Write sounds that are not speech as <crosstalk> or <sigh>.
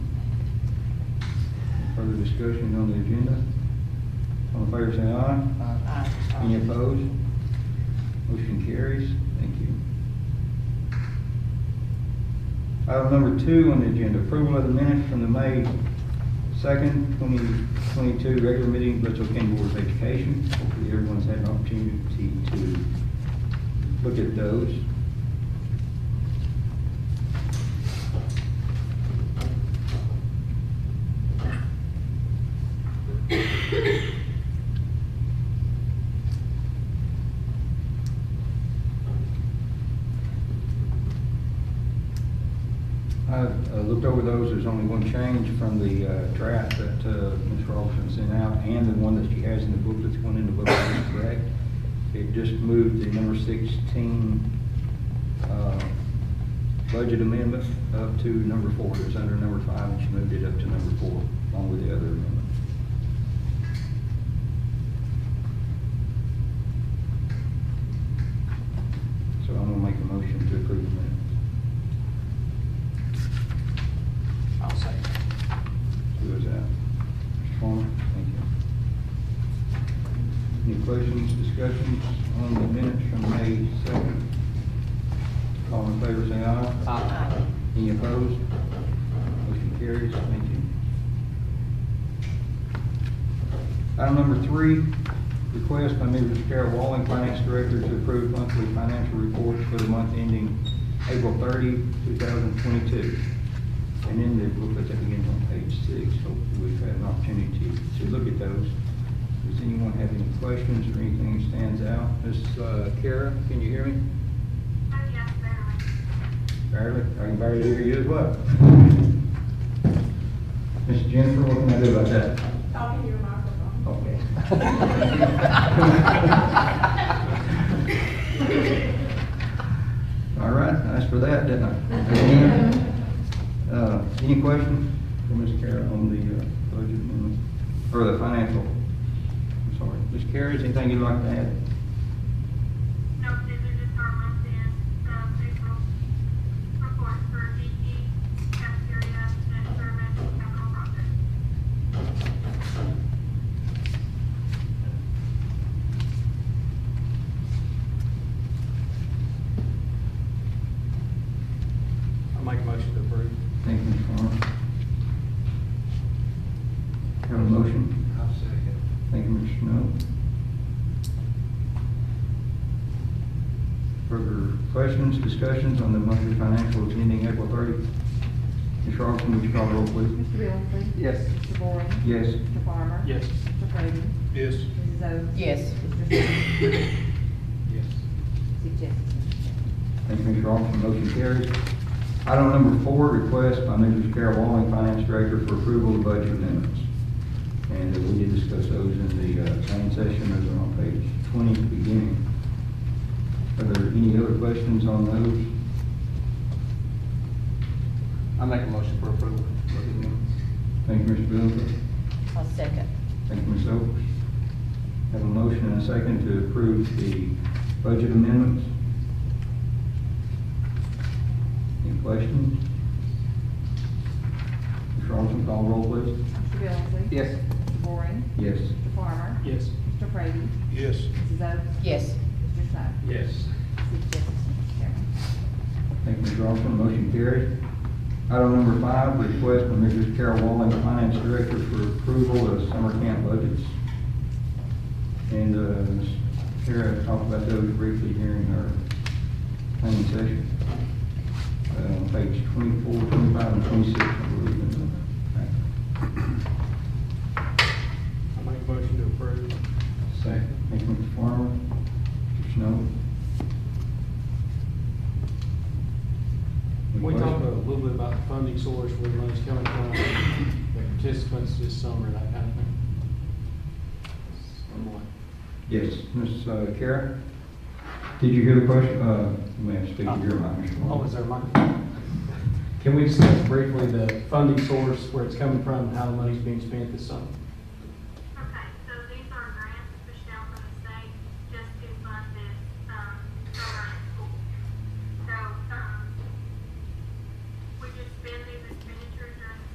Further discussion on the agenda? All in favor, say aye. Aye. Any opposed? Motion carries. Thank you. Item number two on the agenda, approval of the minutes from the May second, twenty twenty-two regular meeting of Litchfield County Board of Education. Hopefully everyone's had an opportunity to look at those. I've uh, looked over those, there's only one change from the uh, draft that uh, Ms. Robinson sent out, and the one that she has in the book that's going in the book is correct. It just moved the number sixteen uh, budget amendment up to number four, it was under number five, and she moved it up to number four, along with the other amendment. So I'm gonna make a motion to approve the minutes. I'll second. Who is that? Mr. Palmer, thank you. Any questions, discussions on the minutes from May second? All in favor, say aye. Aye. Any opposed? Motion carries, thank you. Item number three, request by Mrs. Carol Walling, Finance Director, to approve monthly financial reports for the month ending April 30, 2022. And in the booklet that begins on page six, hopefully we've had an opportunity to, to look at those. Does anyone have any questions or anything that stands out? Ms. uh, Kara, can you hear me? Yes, ma'am. Barely, I can barely hear you as well. Miss Jennifer, what can I do about that? Talking to your microphone. Okay. <laughs> All right, nice for that, didn't I? Uh, any questions for Ms. Kara on the uh, budget amendment, or the financial? I'm sorry, Ms. Kara, is anything you'd like to add? No, these are just our month end, um, April report for DP, cafeteria, debt service, capital project. I'll make a motion to approve. Thank you, Ms. Farmer. Have a motion? I'll second. Thank you, Mr. Snow. Further questions, discussions on the monthly financials ending April 30? Ms. Robinson, would you call the roll, please? Mr. Billingsley? Yes. Mr. Boring? Yes. Mr. Farmer? Yes. Mr. Fragan? Yes. Mrs. Oates? Yes. Mr. Snow? Yes. Six yes. Thank you, Mr. Robinson, motion carries. Item number four, request by Mrs. Carol Walling, Finance Director, for approval of budget amendments. And we did discuss those in the uh, same session, those are on page 20, beginning. Are there any other questions on those? I make a motion for approval. Thank you, Mr. Billingsley. I'll second. Thank you, Ms. Oates. Have a motion and a second to approve the budget amendments. Any questions? Ms. Robinson, call roll, please. Mr. Billingsley? Yes. Mr. Boring? Yes. Mr. Farmer? Yes. Mr. Fragan? Yes. Mrs. Oates? Yes. Mr. Snow? Yes. Six yes, Mr. Chairman. Thank you, Ms. Robinson, motion carries. Item number five, request from Mrs. Carol Walling, Finance Director, for approval of summer camp budgets. And, uh, Ms. Kara talked about those briefly during our planning session. Uh, on page twenty-four, twenty-five, and twenty-six, I believe. in the- I make a motion to approve. Second. Thank you, Mr. Farmer. Mr. Snow. Any We talked a questions? little bit about the funding source, where the money's coming from, the participants this summer, that kind of thing. Somewhat. Yes, Ms. uh, Kara? Did you hear the question? Uh, you may have to speak to your mic, Mr. Long. Oh, is there money? Can we discuss briefly the funding source, where it's coming from, and how the money's being spent this summer?